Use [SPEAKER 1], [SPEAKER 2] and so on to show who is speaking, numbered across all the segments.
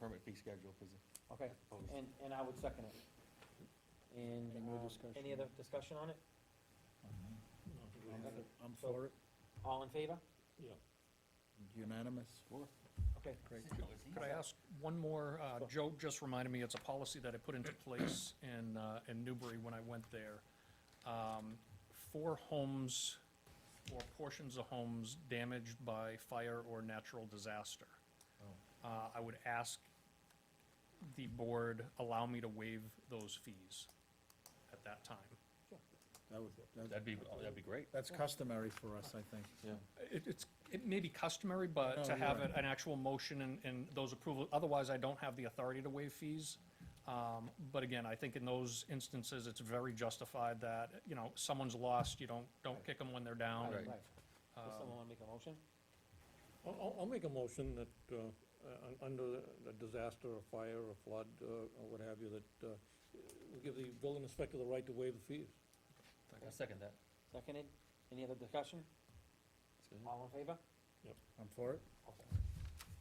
[SPEAKER 1] permit fee schedule, because.
[SPEAKER 2] Okay, and, and I would second it. And,
[SPEAKER 3] Any more
[SPEAKER 2] um,
[SPEAKER 3] discussion?
[SPEAKER 2] any other discussion on it?
[SPEAKER 3] Mm-hmm. I'm-
[SPEAKER 2] Okay.
[SPEAKER 3] I'm for it,
[SPEAKER 2] All in favor?
[SPEAKER 3] unanimous.
[SPEAKER 2] Okay, great.
[SPEAKER 4] Could I ask one more? Uh,
[SPEAKER 2] Sure.
[SPEAKER 4] Joe just reminded me, it's a policy that I put into place in, uh, in Newbury when I went there. Um, For homes or portions of homes damaged by fire or natural disaster. Uh, I would ask the board allow me to waive those fees at that time.
[SPEAKER 3] That would, that-
[SPEAKER 1] That'd be, oh, that'd be great.
[SPEAKER 3] that's customary for us, I think.
[SPEAKER 1] Yeah.
[SPEAKER 4] It, it's, it may be customary, but
[SPEAKER 3] No,
[SPEAKER 4] to
[SPEAKER 3] you're
[SPEAKER 4] have
[SPEAKER 3] right.
[SPEAKER 4] an, an actual motion and, and those approval, otherwise I don't have the authority to waive fees. Um, but again, I think in those instances, it's very justified that, you know, someone's lost, you don't, don't kick them when they're down. Um,
[SPEAKER 1] Right.
[SPEAKER 2] Right. Does someone wanna make a motion?
[SPEAKER 5] I'll- I'll, I'll make a motion that, uh, un- under a disaster, a fire, a flood, uh, or what have you, that uh, we give the building inspector the right to waive the fees.
[SPEAKER 1] I second that.
[SPEAKER 2] Seconded? Any other discussion?
[SPEAKER 1] Mm-hmm.
[SPEAKER 2] All in favor?
[SPEAKER 3] I'm for it.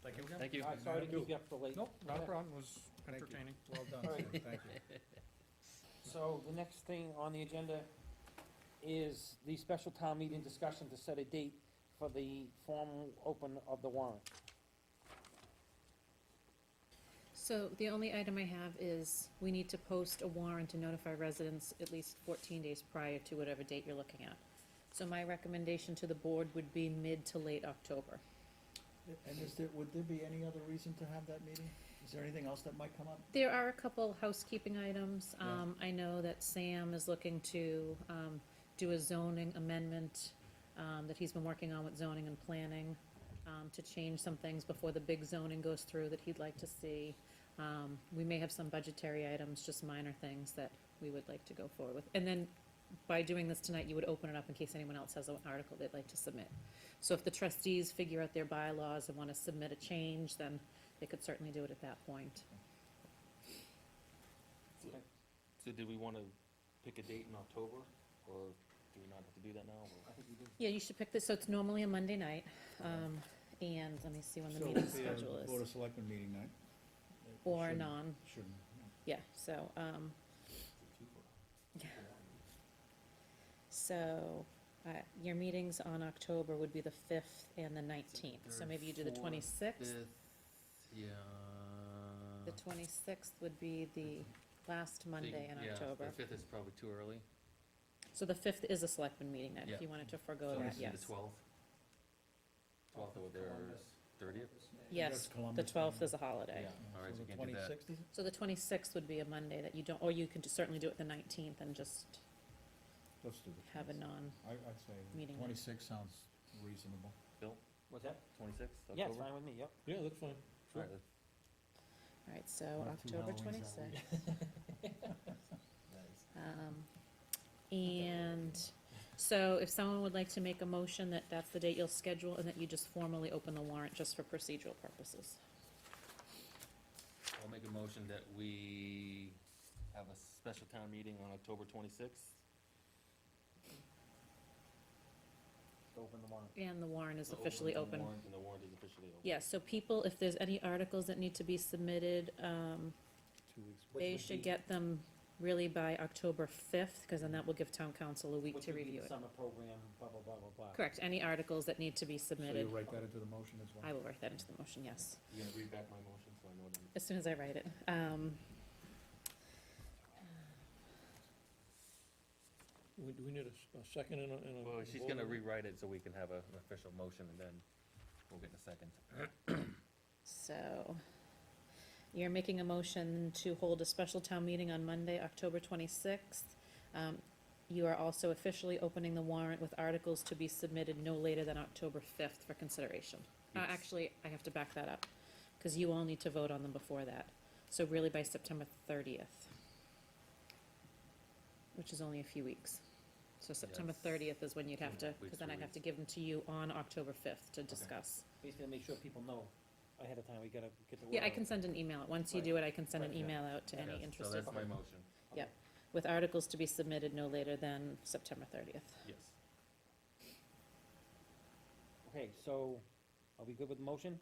[SPEAKER 4] Thank you again.
[SPEAKER 1] Thank you.
[SPEAKER 2] All right, sorry to keep you up so late.
[SPEAKER 4] Nope, not a problem, it was
[SPEAKER 3] Thank you.
[SPEAKER 4] entertaining.
[SPEAKER 3] Well done,
[SPEAKER 2] All right.
[SPEAKER 3] sir, thank you.
[SPEAKER 2] So the next thing on the agenda is the special town meeting discussion to set a date for the formal open of the warrant.
[SPEAKER 6] So the only item I have is, we need to post a warrant to notify residents at least fourteen days prior to whatever date you're looking at. So my recommendation to the board would be mid to late October.
[SPEAKER 3] And is there, would there be any other reason to have that meeting? Is there anything else that might come up?
[SPEAKER 6] There are a couple housekeeping items.
[SPEAKER 3] Yeah.
[SPEAKER 6] Um, I know that Sam is looking to, um, do a zoning amendment, um, that he's been working on with zoning and planning, um, to change some things before the big zoning goes through that he'd like to see. Um, we may have some budgetary items, just minor things that we would like to go forward with. And then by doing this tonight, you would open it up in case anyone else has an article they'd like to submit. So if the trustees figure out their bylaws and wanna submit a change, then they could certainly do it at that point.
[SPEAKER 1] So do we want to pick a date in October, or do we not have to do that now? or-
[SPEAKER 6] Yeah, you should pick this, so it's normally a Monday night, um, and let me see when the
[SPEAKER 3] So it
[SPEAKER 6] meeting
[SPEAKER 3] would be a
[SPEAKER 6] schedule
[SPEAKER 3] Board
[SPEAKER 6] is,
[SPEAKER 3] of Selectmen meeting night. It
[SPEAKER 6] or
[SPEAKER 3] shouldn't-
[SPEAKER 6] non,
[SPEAKER 3] Shouldn't, yeah.
[SPEAKER 6] yeah, so, um, so, uh, your meetings on October would be the fifth and the nineteenth, so
[SPEAKER 7] Third,
[SPEAKER 6] maybe you do the
[SPEAKER 7] fourth,
[SPEAKER 6] twenty-sixth.
[SPEAKER 7] Fifth, uh, yeah.
[SPEAKER 6] The twenty-sixth would be the last Monday in
[SPEAKER 7] yeah,
[SPEAKER 6] October,
[SPEAKER 7] The fifth is probably too early.
[SPEAKER 6] so the fifth is a selectman meeting night, if
[SPEAKER 7] Yeah.
[SPEAKER 6] you wanted to
[SPEAKER 7] So
[SPEAKER 6] forego that,
[SPEAKER 7] let's do
[SPEAKER 6] yes.
[SPEAKER 7] The twelfth. Twelfth or the thirtieth?
[SPEAKER 3] That's
[SPEAKER 6] Yes, the
[SPEAKER 3] Columbus Day.
[SPEAKER 6] twelfth is a
[SPEAKER 7] Yeah,
[SPEAKER 6] holiday.
[SPEAKER 7] all right,
[SPEAKER 3] So
[SPEAKER 7] we
[SPEAKER 3] the
[SPEAKER 7] can do that.
[SPEAKER 3] 26th is it?
[SPEAKER 6] So the twenty-sixth would be a Monday that you don't, or you could certainly do it the nineteenth and just
[SPEAKER 3] Let's do the
[SPEAKER 6] have a
[SPEAKER 3] 26th.
[SPEAKER 6] non.
[SPEAKER 3] I, I'd say
[SPEAKER 6] meeting night.
[SPEAKER 3] twenty-six sounds reasonable.
[SPEAKER 1] Bill,
[SPEAKER 2] What's that?
[SPEAKER 1] twenty-sixth, October?
[SPEAKER 2] Yeah, it's fine with me, yep.
[SPEAKER 5] Yeah, that's fine.
[SPEAKER 1] All right, that's-
[SPEAKER 6] All right, so
[SPEAKER 3] Not two
[SPEAKER 6] October
[SPEAKER 3] Halloweens that
[SPEAKER 6] twenty-sixth. Um, And so if someone would like to make a motion that that's the date you'll schedule and that you just formally open the warrant just for procedural purposes.
[SPEAKER 1] I'll make a motion that we have a special town meeting on October twenty-sixth.
[SPEAKER 2] Open the warrant.
[SPEAKER 6] And the warrant is officially open.
[SPEAKER 1] And the warrant is officially open.
[SPEAKER 6] Yeah, so people, if there's any articles that need to be submitted, um,
[SPEAKER 3] Two weeks.
[SPEAKER 2] Which
[SPEAKER 6] they
[SPEAKER 2] would
[SPEAKER 6] should
[SPEAKER 2] be-
[SPEAKER 6] get them really by October fifth, because then that will give town council a week
[SPEAKER 2] which
[SPEAKER 6] to
[SPEAKER 2] would be the
[SPEAKER 6] review it.
[SPEAKER 2] Summer program, blah, blah, blah, blah, blah.
[SPEAKER 6] Correct, any articles that need to be
[SPEAKER 3] So you
[SPEAKER 6] submitted,
[SPEAKER 3] write that into the motion as well?
[SPEAKER 6] I will write that into the motion, yes.
[SPEAKER 1] You gonna read back my motion, so I know what I'm.
[SPEAKER 6] as soon as I write it. Um,
[SPEAKER 5] We- Do we need a s- a second and a, and a?
[SPEAKER 1] Well, she's gonna
[SPEAKER 5] vote?
[SPEAKER 1] rewrite it so we can have a- an official motion, and then we'll get a second.
[SPEAKER 6] so you're making a motion to hold a special town meeting on Monday, October twenty-sixth. Um, you are also officially opening the warrant with articles to be submitted no later than October fifth for consideration. Uh,
[SPEAKER 1] Yes.
[SPEAKER 6] actually, I have to back that up, cause you all need to vote on them before that. So really by September thirtieth. Which is only a few weeks. So September
[SPEAKER 1] Yes.
[SPEAKER 6] thirtieth is when you'd have to,
[SPEAKER 1] Yeah, weeks,
[SPEAKER 6] cause then
[SPEAKER 1] two
[SPEAKER 6] I'd have
[SPEAKER 1] weeks.
[SPEAKER 6] to give them to you on October fifth to discuss.
[SPEAKER 2] Basically, make sure people know ahead of time, we gotta get the word
[SPEAKER 6] Yeah, I
[SPEAKER 2] out.
[SPEAKER 6] can send an email. Once you
[SPEAKER 2] Right.
[SPEAKER 6] do it, I can send an
[SPEAKER 2] Right, yeah.
[SPEAKER 6] email out to
[SPEAKER 1] Yes,
[SPEAKER 6] any
[SPEAKER 1] So
[SPEAKER 6] interested,
[SPEAKER 1] that's my motion,
[SPEAKER 6] with articles to be submitted no later than September thirtieth.
[SPEAKER 1] yes.
[SPEAKER 2] Okay, so, are we good with the motion?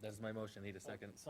[SPEAKER 1] That's my motion, need a second?
[SPEAKER 2] Someone